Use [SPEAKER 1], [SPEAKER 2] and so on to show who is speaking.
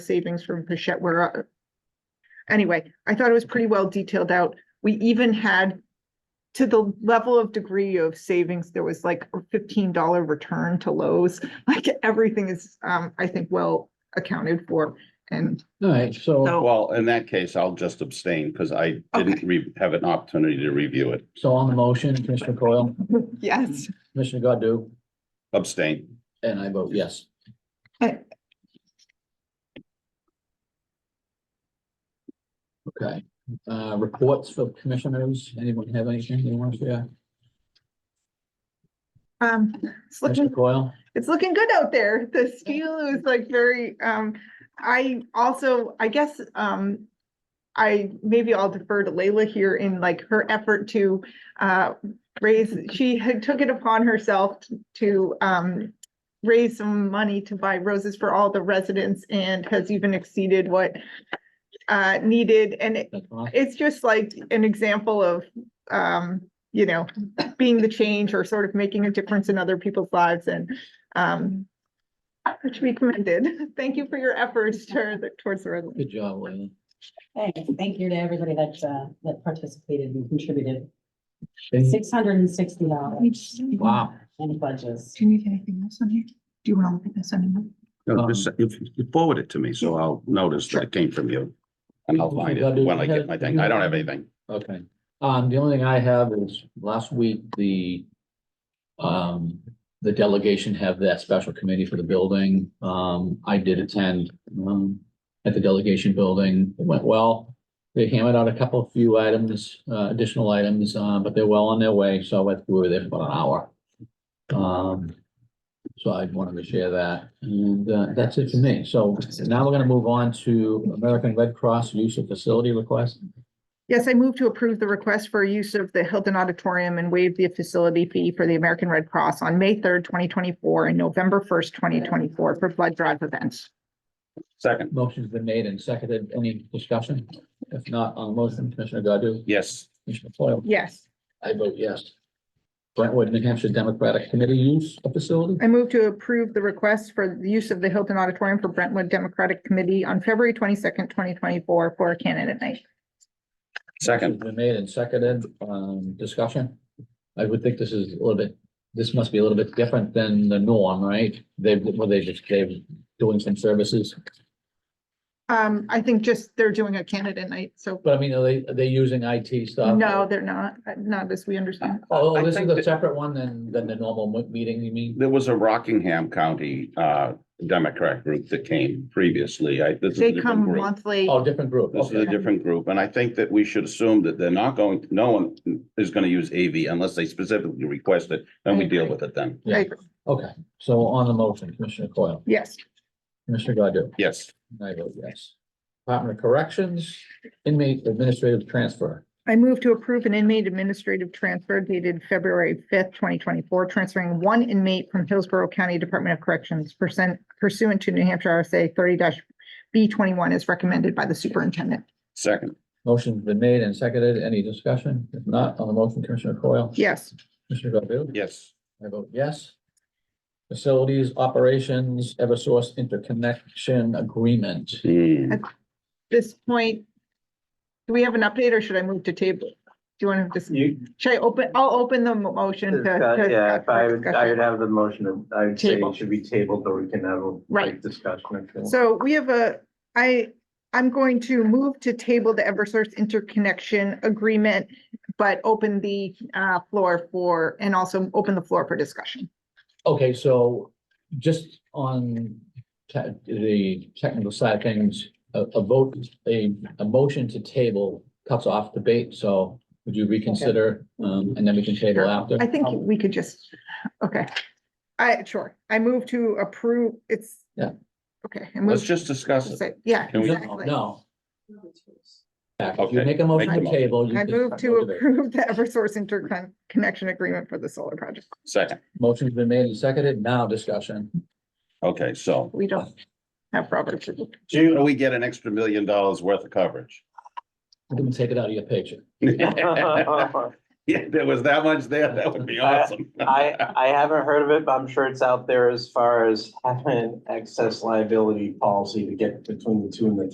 [SPEAKER 1] savings from Pichette, where, uh, anyway, I thought it was pretty well detailed out. We even had, to the level of degree of savings, there was like a fifteen dollar return to Lowe's. Like, everything is, um, I think, well accounted for. And
[SPEAKER 2] All right, so,
[SPEAKER 1] so,
[SPEAKER 3] Well, in that case, I'll just abstain because I didn't re- have an opportunity to review it.
[SPEAKER 2] so on the motion, Commissioner Coyle,
[SPEAKER 1] yes,
[SPEAKER 2] Commissioner Godu,
[SPEAKER 3] Abstain.
[SPEAKER 2] and I vote yes.
[SPEAKER 1] I-
[SPEAKER 2] Okay, uh, reports for commissioners, anyone have anything they want to share?
[SPEAKER 1] um, it's looking
[SPEAKER 2] Commissioner Coyle,
[SPEAKER 1] it's looking good out there. The steel is like very, um, I also, I guess, um. I, maybe I'll defer to Layla here in like her effort to, uh, raise, she had took it upon herself to, um. Raise some money to buy roses for all the residents and has even exceeded what, uh, needed. And it-
[SPEAKER 2] that's all.
[SPEAKER 1] it's just like an example of, um, you know, being the change or sort of making a difference in other people's lives and, um, which we commended. Thank you for your efforts toward, towards the resolution.
[SPEAKER 2] Good job, Leila.
[SPEAKER 4] Thanks. Thank you to everybody that, uh, that participated and contributed.
[SPEAKER 2] Okay,
[SPEAKER 4] Six hundred and sixty dollars
[SPEAKER 2] Wow,
[SPEAKER 4] in pledges.
[SPEAKER 5] Do you need anything else on here? Do you want to look at this anymore?
[SPEAKER 1] Um,
[SPEAKER 3] No, just if you forward it to me, so I'll notice that it came from you. And I'll find it when I get my thing. I don't have anything.
[SPEAKER 2] okay. Um, the only thing I have is last week, the um, the delegation have that special committee for the building. Um, I did attend, um, at the delegation building. It went well. They hammered out a couple of few items, uh, additional items, uh, but they're well on their way. So I think we were there for about an hour. Um, so I wanted to share that and, uh, that's it for me. So now we're gonna move on to American Red Cross use of facility request.
[SPEAKER 1] Yes, I move to approve the request for use of the Hilton Auditorium and waive the facility fee for the American Red Cross on May third, twenty twenty-four and November first, twenty twenty-four for blood drive events.
[SPEAKER 3] Second,
[SPEAKER 2] Motion's been made and seconded. Any discussion? If not, on the motion, Commissioner Godu?
[SPEAKER 3] yes,
[SPEAKER 2] Commissioner Foil?
[SPEAKER 1] Yes,
[SPEAKER 2] I vote yes. Brentwood, New Hampshire Democratic Committee use of facility?
[SPEAKER 1] I move to approve the request for the use of the Hilton Auditorium for Brentwood Democratic Committee on February twenty-second, twenty twenty-four for a candidate night.
[SPEAKER 3] second,
[SPEAKER 2] Motion's Been made and seconded, um, discussion. I would think this is a little bit, this must be a little bit different than the norm, right? They, were they just, they doing some services,
[SPEAKER 1] Um, I think just they're doing a candidate night, so
[SPEAKER 2] but I mean, are they, are they using IT
[SPEAKER 3] Uh,
[SPEAKER 2] stuff?
[SPEAKER 1] no, they're not, Uh, not as we understand.
[SPEAKER 2] Oh,
[SPEAKER 3] I
[SPEAKER 2] this is
[SPEAKER 3] think
[SPEAKER 2] a
[SPEAKER 3] that-
[SPEAKER 2] separate one than, than the normal mo- meeting, you mean?
[SPEAKER 3] there was a Rockingham County uh Democrat group that came previously. I, this is a
[SPEAKER 1] They
[SPEAKER 3] different
[SPEAKER 1] come
[SPEAKER 3] group.
[SPEAKER 1] monthly.
[SPEAKER 2] Oh, different group,
[SPEAKER 3] This is
[SPEAKER 2] okay.
[SPEAKER 3] a different group, and I think that we should assume that they're not going, no one is gonna use AV unless they specifically request it, and we deal with it then.
[SPEAKER 1] I
[SPEAKER 2] Yeah,
[SPEAKER 1] agree.
[SPEAKER 2] okay. So on the motion, Commissioner Coyle?
[SPEAKER 1] Yes,
[SPEAKER 2] Commissioner Godu?
[SPEAKER 3] Yes.
[SPEAKER 2] I vote yes. Department of Corrections, inmate administrative transfer.
[SPEAKER 1] I move to approve an inmate administrative transfer dated February fifth, twenty twenty-four, transferring one inmate from Hillsborough County Department of Corrections percent pursuant to New Hampshire RSA thirty B twenty-one as recommended by the superintendent.
[SPEAKER 3] Second,
[SPEAKER 2] Motion's been made and seconded. Any discussion? If not, on the motion, Commissioner Coyle?
[SPEAKER 1] Yes,
[SPEAKER 2] Commissioner Godu?
[SPEAKER 3] yes,
[SPEAKER 2] I vote yes. Facilities, operations, Eversource interconnection agreement.
[SPEAKER 3] Hmm,
[SPEAKER 1] this point, do we have an update or should I move to table? Do you want to just,
[SPEAKER 6] You,
[SPEAKER 1] should I open, I'll open the mo- motion to.
[SPEAKER 6] discuss-
[SPEAKER 1] to-
[SPEAKER 6] yeah, if I would, I
[SPEAKER 1] discussion.
[SPEAKER 6] would have the motion, of- I would say
[SPEAKER 1] Table.
[SPEAKER 6] it should be tabled, but we can have a
[SPEAKER 1] Right.
[SPEAKER 6] brief discussion. if you want.
[SPEAKER 1] So we have a, I, I'm going to move to table the Eversource interconnection agreement, but open the uh floor for, and also open the floor for discussion.
[SPEAKER 2] Okay, so just on te- the technical side of things, a, a vote, a, a motion to table cuts off debate, so would you reconsider, um, and then we can table after?
[SPEAKER 1] I think
[SPEAKER 6] Um,
[SPEAKER 1] we could just, okay. I, sure, I move to approve, it's.
[SPEAKER 2] Yeah.
[SPEAKER 1] Okay. I
[SPEAKER 3] let's
[SPEAKER 1] move
[SPEAKER 3] just discuss
[SPEAKER 1] to
[SPEAKER 3] it.
[SPEAKER 1] say- Yeah,
[SPEAKER 3] Can we-
[SPEAKER 2] No,
[SPEAKER 1] exactly.
[SPEAKER 2] No. Back, If you
[SPEAKER 3] Okay,
[SPEAKER 2] make a motion
[SPEAKER 3] make
[SPEAKER 2] to
[SPEAKER 3] the motion.
[SPEAKER 2] table. you
[SPEAKER 1] I
[SPEAKER 2] can-
[SPEAKER 1] move to approve the Eversource interconnection agreement for the solar project.
[SPEAKER 3] Second,
[SPEAKER 2] Motion's been made and seconded, now discussion.
[SPEAKER 3] okay, so
[SPEAKER 1] We don't have Robert's. rules.
[SPEAKER 3] do we get an extra million dollars worth of coverage?
[SPEAKER 2] I'm gonna take it out of your picture.
[SPEAKER 3] All Yeah, there was that much there, that would be
[SPEAKER 7] I-
[SPEAKER 3] awesome.
[SPEAKER 7] I, I haven't heard of it, but I'm sure it's out there as far as having an excess liability policy to get between the two and the